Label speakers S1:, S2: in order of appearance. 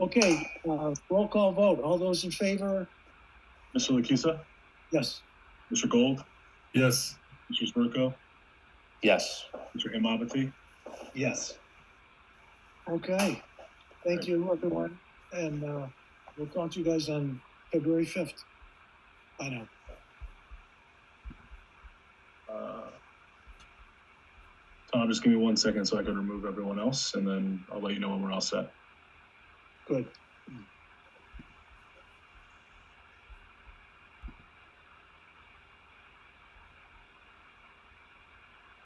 S1: Okay, uh, roll call vote. All those in favor?
S2: Mr. Lakisa?
S1: Yes.
S2: Mr. Gold?
S3: Yes.
S2: Mr. Zerko?
S4: Yes.
S2: Mr. Imabati?
S1: Yes. Okay, thank you, everyone, and, uh, we'll talk to you guys on February fifth. I know.
S2: Uh, Tom, just give me one second so I can remove everyone else, and then I'll let you know when we're all set.
S1: Good.